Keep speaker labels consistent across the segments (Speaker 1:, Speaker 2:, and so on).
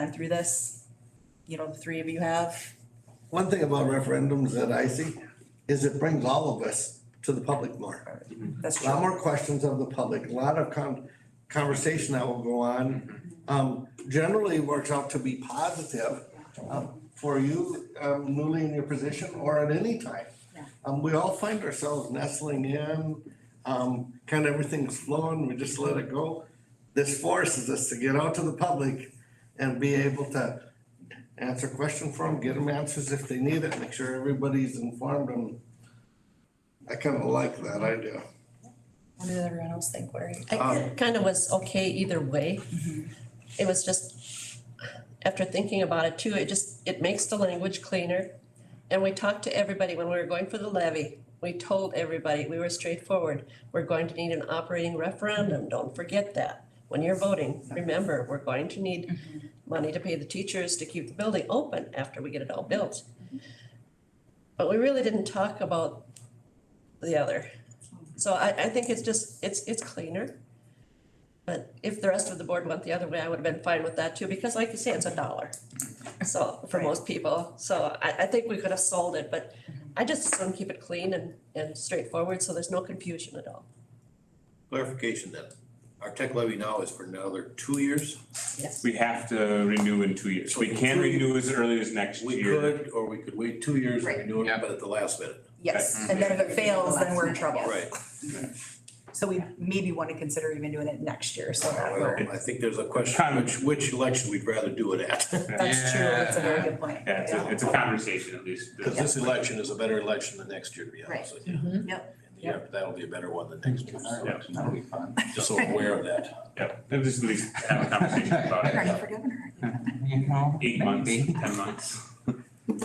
Speaker 1: been through this. You know, the three of you have.
Speaker 2: One thing about referendums that I see is it brings all of us to the public more.
Speaker 1: That's
Speaker 2: A lot
Speaker 1: true.
Speaker 2: more questions of the public, a lot of con- conversation that will go on. Um, generally works out to be positive um, for you um, newly in your position or at any time.
Speaker 1: Yeah.
Speaker 2: Um, we all find ourselves nestling in, um, kind of everything's flowing, we just let it go. This forces us to get out to the public and be able to answer question for them, get them answers if they need it, make sure everybody's informed and I kind of like that idea.
Speaker 1: What did everyone else think, Larry?
Speaker 2: Um,
Speaker 3: I kind of was okay either way. It was just, after thinking about it too, it just, it makes the language cleaner. And we talked to everybody when we were going for the levy. We told everybody, we were straightforward. We're going to need an operating referendum, don't forget that. When you're voting, remember, we're going to need money to pay the teachers to keep the building open after we get it all built. But we really didn't talk about the other. So I, I think it's just, it's, it's cleaner. But if the rest of the board went the other way, I would have been fine with that too, because like you say, it's a dollar. So, for most people, so I, I think we could have sold it, but I just want to keep it clean and, and straightforward, so there's no confusion at all.
Speaker 4: Clarification then, our tech levy now is for another two years?
Speaker 3: Yes.
Speaker 5: We have to renew in two years. We can renew as early as next
Speaker 4: We
Speaker 5: year.
Speaker 4: could, or we could wait two years and renew it, but at the last minute.
Speaker 1: Yes, and then if it fails, then we're in trouble.
Speaker 4: Right,
Speaker 1: So we maybe want to consider even doing it next year, so that
Speaker 4: well,
Speaker 1: we're.
Speaker 4: I think there's a question, which, which election we'd rather do it at?
Speaker 1: That's true, that's a very good point.
Speaker 5: Yeah, it's a, it's a conversation at least.
Speaker 4: Because this election is a better election than next year, to be honest with
Speaker 1: Mm-hmm.
Speaker 4: you.
Speaker 1: Yep.
Speaker 4: Yeah, that'll be a better one than next year,
Speaker 5: Yeah.
Speaker 6: That'll be fun.
Speaker 4: just so aware of that.
Speaker 5: Yeah, at least at least have a conversation about it.
Speaker 1: Running for governor.
Speaker 6: You know?
Speaker 5: eight months,
Speaker 6: maybe.
Speaker 5: ten months.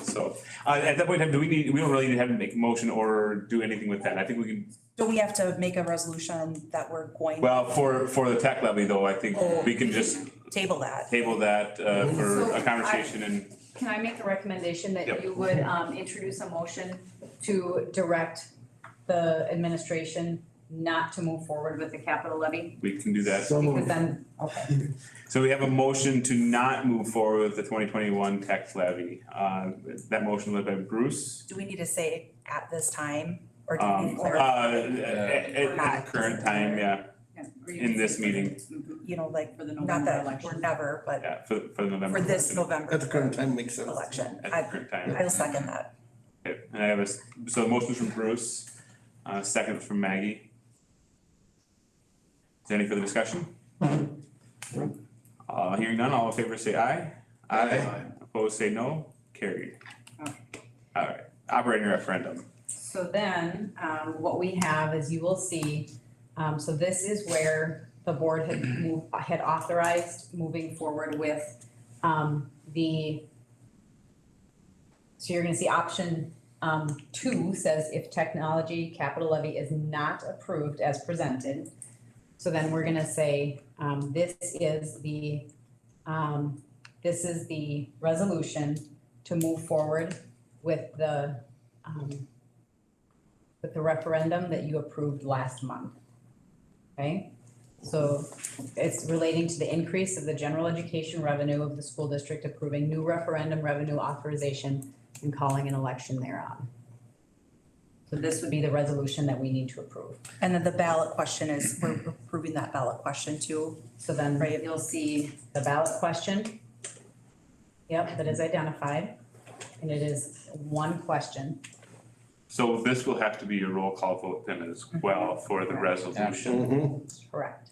Speaker 5: So, uh, at that point in time, do we need, we don't really need to have to make a motion or do anything with that. I think we can,
Speaker 1: So we have to make a resolution that we're going to
Speaker 5: well, for, for the tech levy though, I think we can just
Speaker 1: table that.
Speaker 5: table that, uh, for
Speaker 7: So
Speaker 5: a
Speaker 7: I-
Speaker 5: conversation and,
Speaker 7: Can I make a recommendation
Speaker 5: Yep.
Speaker 7: that you would um introduce a motion to direct the administration not to move forward with the capital levy?
Speaker 5: we can do that.
Speaker 2: So
Speaker 7: Because
Speaker 2: moved.
Speaker 7: then, okay,
Speaker 5: So we have a motion to not move forward with the twenty twenty-one tax levy. Uh, that motion led by Bruce.
Speaker 1: Do we need to say at this time, or do we need
Speaker 5: Um,
Speaker 1: to
Speaker 5: uh,
Speaker 1: clarify,
Speaker 5: at, at- at the current time, yeah,
Speaker 7: yeah, or you
Speaker 5: in
Speaker 7: can
Speaker 5: this
Speaker 7: say for the-
Speaker 5: meeting,
Speaker 1: you know, like,
Speaker 7: For the
Speaker 1: not
Speaker 7: November
Speaker 1: that we're
Speaker 7: election.
Speaker 1: never, but
Speaker 5: yeah, for, for the November.
Speaker 1: for this
Speaker 5: election.
Speaker 1: November
Speaker 2: At the current time makes sense.
Speaker 1: election.
Speaker 5: At
Speaker 1: I,
Speaker 5: the current time.
Speaker 1: I'll second that.
Speaker 5: Okay, and I have a, s- so the motion's from Bruce, uh, second from Maggie. Is there any further discussion? Uh, hearing none, all in favor say aye. Opposed say no, carried.
Speaker 7: Okay.
Speaker 5: Alright, operating referendum.
Speaker 7: So then, um, what we have is you will see, um, so this is where the board had moved, had authorized moving forward with, um, the. So you're gonna see option, um, two says if technology capital levy is not approved as presented. So then we're gonna say, um, this is the, um, this is the resolution to move forward with the, um, with the referendum that you approved last month. Okay, so it's relating to the increase of the general education revenue of the school district approving new referendum revenue authorization and calling an election thereon. So this would be the resolution that we need to approve.
Speaker 1: And then the ballot question is, we're approving that ballot question too.
Speaker 7: So then
Speaker 1: Right.
Speaker 7: you'll see the ballot question. Yep, that is identified, and it is one question.
Speaker 5: So this will have to be a roll call vote then as well for the resolution.
Speaker 2: Mhm.
Speaker 7: Correct.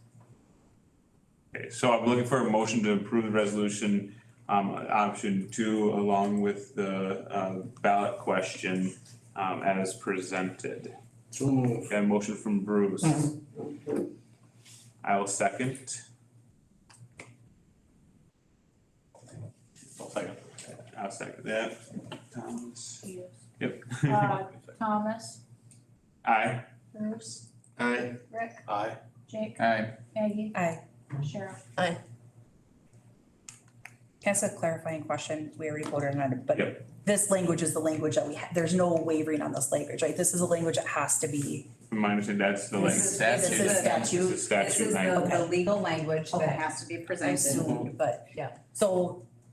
Speaker 5: Okay, so I'm looking for a motion to approve the resolution, um, option two along with the, uh, ballot question, um, as presented.
Speaker 2: So moved.
Speaker 5: Got a motion from Bruce. I will second.
Speaker 4: I'll second.
Speaker 5: I'll second that.
Speaker 6: Um,
Speaker 5: Thomas. Yep.
Speaker 8: Uh, Thomas,
Speaker 5: Aye.
Speaker 8: Bruce,
Speaker 2: Aye.
Speaker 8: Rick,
Speaker 4: Aye.
Speaker 8: Jake,
Speaker 6: Aye.
Speaker 8: Maggie.
Speaker 1: Aye.
Speaker 8: Cheryl.
Speaker 1: Can I ask a clarifying question? We already voted on it, but this language is the language that we, ha- there's no wavering on this language, right? This is a language that has to be,
Speaker 5: From my understanding, that's the
Speaker 7: This
Speaker 5: length.
Speaker 7: is-
Speaker 6: Statute.
Speaker 1: this is statute.
Speaker 5: It's a statute
Speaker 7: This is
Speaker 5: language.
Speaker 7: the, the legal language
Speaker 1: Okay.
Speaker 7: that has to be
Speaker 1: I
Speaker 7: presented.
Speaker 1: assumed, but.
Speaker 7: Yeah.
Speaker 1: So